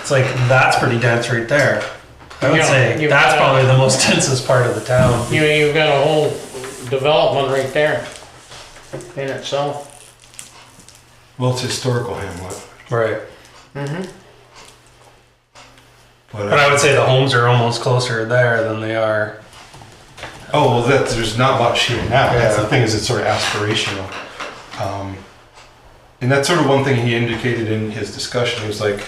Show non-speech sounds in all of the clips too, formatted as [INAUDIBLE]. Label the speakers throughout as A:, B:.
A: It's like that's pretty dense right there. I would
B: Yeah,
A: say
B: you-
A: that's probably
B: [LAUGHS]
A: the most densest part of the town.
B: You, you've got a whole development right there in itself.
C: Well, it's historical hamlet,
A: Right.
C: but,
A: But I would say the homes are almost closer there than they are.
C: oh well, that there's not much here now. That's the
A: Yeah.
C: thing is, it's sort of aspirational, um, and that's sort of one thing he indicated in his discussion. He was like,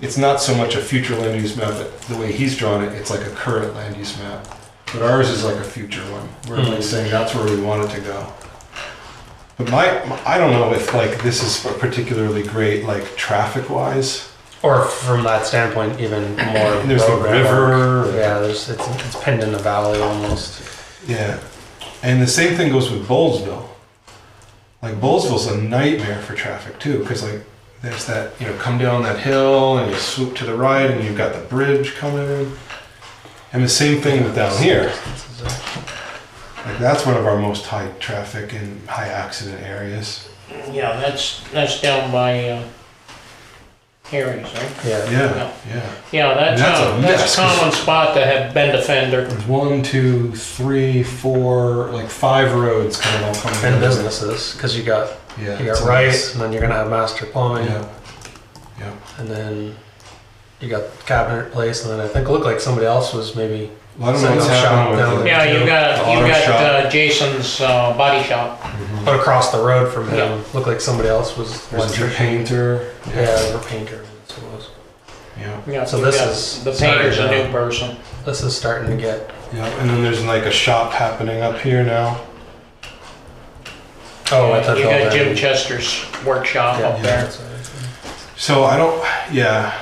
C: it's not so much a future land use map, but the way he's drawn it, it's like a current land use map. But ours is like a future one. We're like
A: Mm.
C: saying that's where we want it to go. But my, my, I don't know if like this is particularly great, like traffic wise.
A: Or from that standpoint, even more.
C: And there's the
A: road
C: river.
A: Yeah, there's, it's, it's pinned in the valley almost.
C: Yeah. And the same thing goes with Bowlesville. Like Bowlesville's a nightmare for traffic too, because like there's that you know come down that hill and you swoop to the right and you've got the bridge coming. And the same thing with down here. Like that's one of our most high traffic and high accident areas.
B: Yeah, that's, that's down by, uh, Harry's, right?
A: Yeah.
C: Yeah, yeah.
B: Yeah, that's,
C: That's a
B: a- that's
C: mess,
B: a
C: 'cause-
B: common spot to have bend a fender.
C: There's one, two, three, four, like five roads kind of all coming
A: And
C: in.
A: businesses, because you got
C: Yeah.
A: you
C: it's
A: got
C: a
A: rice,
C: mess.
A: and then you're gonna have master plumbing,
C: Yeah.
A: and then you got cabinet place, and then I think it looked like somebody else was maybe
C: Well, I don't know what's
A: Some shop
C: happening
A: down
C: with it.
B: Yeah, you got,
C: The
B: you
C: auto
B: got
C: shop.
B: uh, Jason's, uh, body shop.
C: Mhm.
A: but across the road from him.
B: Yeah.
A: Looked like somebody else was
C: There's a painter.
A: Yeah, or painter. That's what it was.
C: Yeah.
B: Yeah,
A: So
B: you
A: this
B: got-
A: is-
B: The painter's a
A: sorry,
B: new person.
A: This is starting to get.
C: Yeah. And then there's like a shop happening up here now.
A: Oh, I thought
B: You
A: all
B: got
A: that-
B: Jim Chester's workshop
A: Yeah,
B: up
C: yeah.
B: there
C: So I don't, yeah.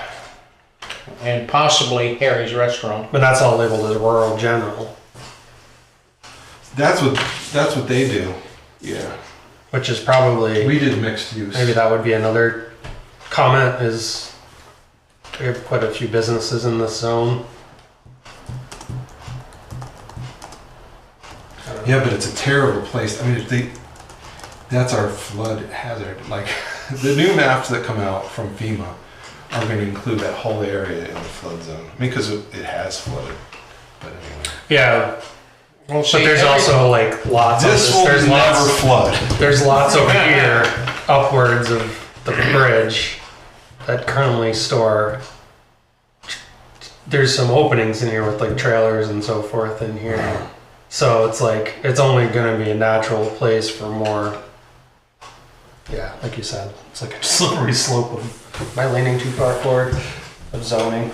B: and possibly Harry's restaurant.
A: But that's all labeled as rural general,
C: That's what, that's what they do. Yeah.
A: which is probably
C: We did mixed use.
A: maybe that would be another comment is we have quite a few businesses in this zone. I don't know.
C: Yeah, but it's a terrible place. I mean, if they, that's our flood hazard. Like [LAUGHS] the new maps that come out from FEMA are going to include that whole area in the flood zone because it it has flooded. But anyway.
A: Yeah,
B: Well,
A: but there's also like lots of
C: This
A: this.
C: will
A: There's
C: never
A: lots,
C: flood.
A: there's lots over here upwards of the bridge that currently store. There's some openings in here with like trailers and so forth in here. So it's like, it's only gonna be a natural place for more. Yeah, like you said, it's like a [LAUGHS] slippery slope of, am I leaning too far forward of zoning?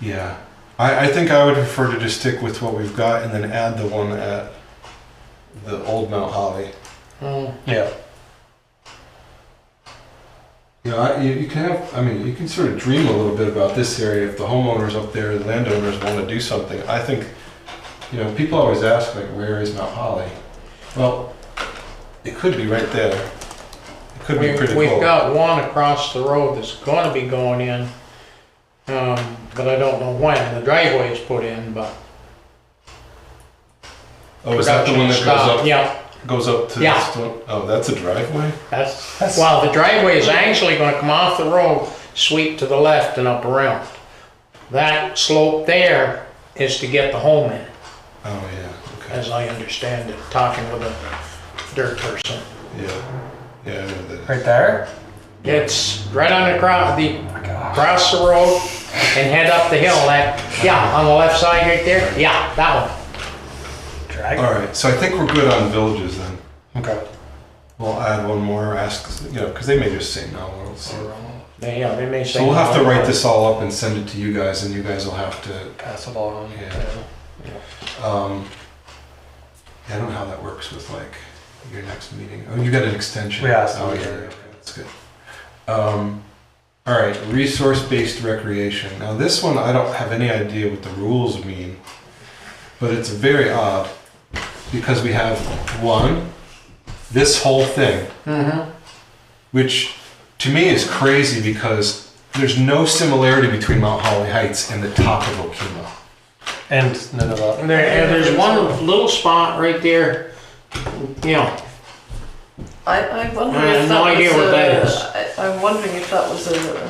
C: Yeah, I, I think I would prefer to just stick with what we've got and then add the one at the old Mount Holly.
B: Mm,
A: Yeah.
C: You know, I, you, you can have, I mean, you can sort of dream a little bit about this area. If the homeowners up there, the landowners want to do something, I think, you know, people always ask, like, where is Mount Holly? Well, it could be right there. It could
B: we-
C: be pretty
B: We've
C: cool.
B: got one across the road that's gonna be going in, um, but I don't know when. The driveway is put in, but.
C: oh, is that the
B: production
C: one that goes
B: stopped.
C: up,
B: Yeah,
C: goes up to
B: Yeah.
C: the stone? Oh, that's a driveway?
B: that's, well, the driveway is actually gonna come off the road, sweep to the left and up around. That slope there is to get the home in,
C: Oh, yeah. Okay.
B: as I understand it, talking with a dirt person.
C: Yeah. Yeah, I know that.
A: Right there?
B: It's right on the cross, the,
A: Oh my gosh.
B: cross the road and head up the hill, that, yeah, on the left side right there, yeah, that one.
A: Dragon.
C: All right, so I think we're good on villages then.
A: Okay.
C: We'll add one more, ask, you know, because they may just say no. we'll see.
B: They- Yeah, they may say.
C: So we'll have to write this all up and send it to you guys, and you guys will have to,
A: Pass it along.
C: Yeah. um, yeah, I don't know how that works with like your next meeting. Oh, you got an extension.
A: We asked
C: Oh,
A: them.
C: yeah, yeah, okay, that's good. Um, all right, resource-based recreation. Now, this one, I don't have any idea what the rules mean, but it's very odd because we have one, this whole thing,
B: Mm-hmm,
C: which to me is crazy because there's no similarity between Mount Holly Heights and the top of Okemo.
A: And Nineveh.
B: and there, and there's one little spot right there, you know,
D: I, I wonder
B: I have
D: if that
B: no idea
D: was
B: what
D: a-
B: that is.
D: I, I'm wondering if that was a,